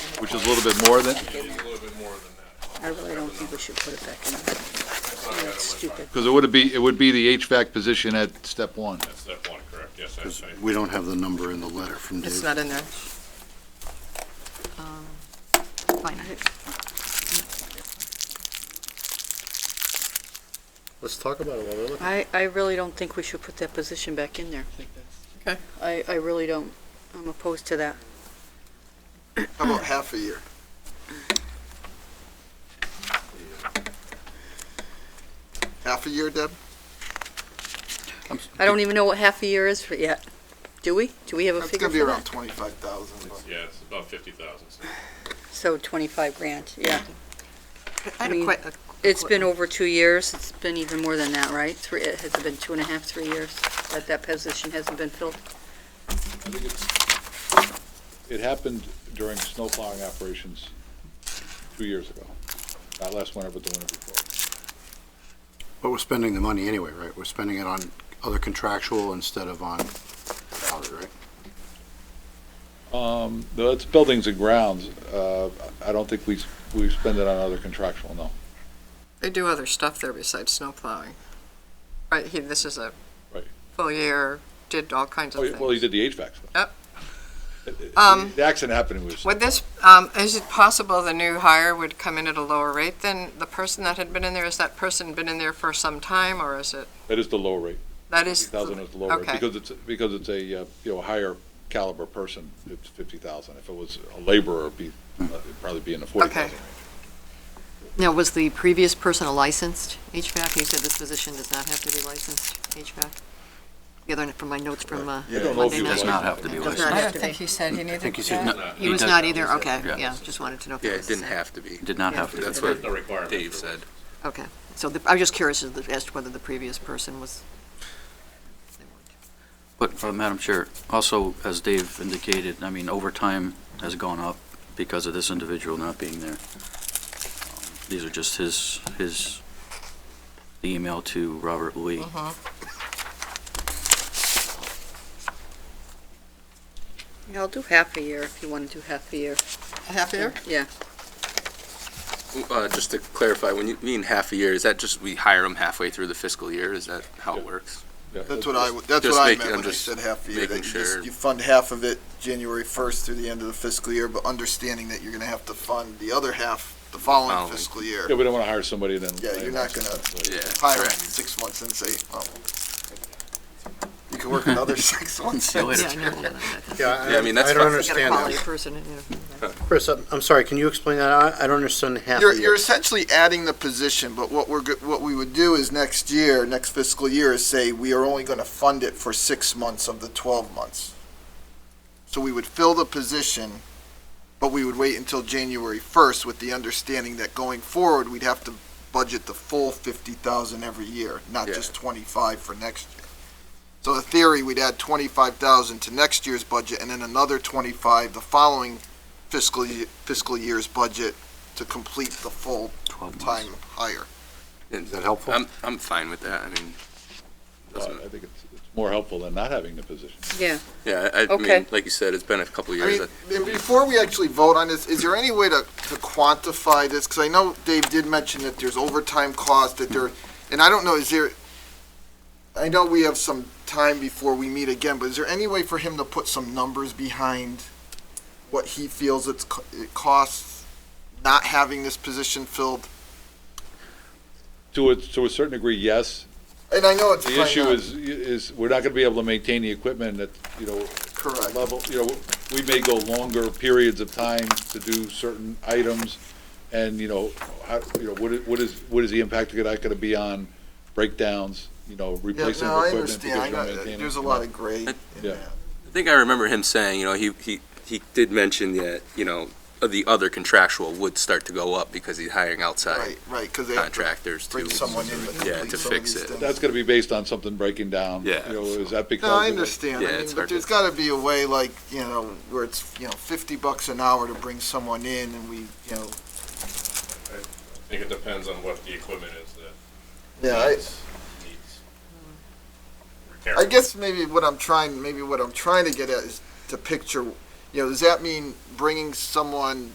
which is a little bit more than, I really don't think we should put it back in. I think That's stupid. because it would be, it would be the HVAC position at step one. That's step one, correct, yes, I Because say. we don't have the number in the letter from Dave. It's not in there. Um, Fine. Let's talk about it while we're looking. I, I really don't think we should put that position back in there. Okay. I, I really don't. I'm opposed to that. How about half a year? Half a year, Deb? I don't even know what half a year is for yet. Do we? Do we have a That's figure gonna be for around that? twenty-five thousand, but Yeah, it's about fifty thousand, so So twenty-five grand, yeah. I had mean, a que- a- It's been over two years. It's been even more than that, right? Three, it has been two and a half, three years that that position hasn't been filled. It happened during snow plowing operations two years ago, not last winter, but the winter before. But we're spending the money anyway, right? We're spending it on other contractual instead of on salary, right? Um, though it's buildings and grounds, uh, I don't think we, s- we spend it on other contractual, no. They do other stuff there besides snow plowing. Right, he, this is a Right. full year, did all kinds of Oh, yeah, Well, he did things. the HVAC stuff. Yep. The- Um, The accident happened, it was, Would this, um, is it possible the new hire would come in at a lower rate than the person that had been in there? Has that person been in there for some time, or is it, that is the low rate. that is? the- 50,000 is the lower, Okay. because it's, because it's a, uh, you know, higher caliber person, it's 50,000. If it was a laborer, it'd be, it'd probably be in the 40,000. Okay. Now, was the previous person a licensed HVAC? You said this position does not have to be licensed HVAC? The other, from my notes from uh, I don't know if Monday he was night? Does not have to be Does licensed. not I have don't to be. think he said he needed he said that. He was not either, okay, yeah, just wanted to know. if Yeah, it it was the didn't same. have to be. Did not have to. Yeah. be. That's what no requirement. Dave for- said. Okay, so the- I was just curious as as to whether the previous person was. they weren't. But, uh, Madam Chair, also, as Dave indicated, I mean, overtime has gone up because of this individual not being there. Um, These are just his, his email to Robert Lee. Yeah, I'll do half a year if you want to do half a year. Half year? Yeah, Uh, just to clarify, when you mean half a year, is that just we hire them halfway through the fiscal year? Is that how it works? Yeah, that's what I, w- that's Just what I making- meant I'm when I just said half a year. That you making just, sure. you fund half of it January first through the end of the fiscal year, but understanding that you're gonna have to fund the other half the following Following. fiscal year. Yeah, we don't want to hire somebody and then. Yeah, you're not gonna Yeah, hire correct. six months and say, oh, you can work another six months. See you later. Yeah, I know. Yeah, I mean, that's I You don't fine. got a understand quality that. person, you know. Chris, I'm, I'm sorry, can you explain that? I, I don't understand half You're, a you're year. essentially adding the position, but what we're, go- what we would do is next year, next fiscal year, is say we are only gonna fund it for six months of the twelve months. So we would fill the position, but we would wait until January first with the understanding that going forward, we'd have to budget the full fifty thousand every year, not Yeah. just twenty-five for next year. So the theory, we'd add twenty-five thousand to next year's budget and then another twenty-five the following fiscal, ye- fiscal year's budget to complete the full Twelve months. time higher. And that helpful? I'm, I'm fine with that. I mean, I think it's, it's more helpful than not having the position. yeah. yeah, I, I Okay. mean, like you said, it's been a couple I years. mean, and before we actually vote on this, is there any way to, to quantify this? Because I know Dave did mention that there's overtime cost, that there, and I don't know, is there, I know we have some time before we meet again, but is there any way for him to put some numbers behind what he feels it's, co- it costs not having this position filled? To a, to a certain degree, yes. And I know it's. The probably issue not is, is we're not going to be able to maintain the equipment at, you know, Correct. level, you know, we may go longer periods of time to do certain items. And, you know, how, you know, what is, what is, what is the impact of that going to be on breakdowns, you know, Yeah, replacing no, I equipment? understand. I because you're know, maintaining- there's a lot of gray in Yeah. that. I think I remember him saying, you know, he, he, he did mention that, you know, the other contractual would start to go up because he's hiring outside Right, right, because they have to contractors to. bring someone in to Yeah, complete to some of fix these it. things. That's going to be based on something breaking down. Yeah, You know, so- is that because? No, I of the- understand. Yeah, I it's mean, but hard to- there's got to be a way, like, you know, where it's, you know, fifty bucks an hour to bring someone in and we, you know. I think it depends on what the equipment is that needs, needs repair. I guess maybe what I'm trying, maybe what I'm trying to get at is to picture, you know, does that mean bringing someone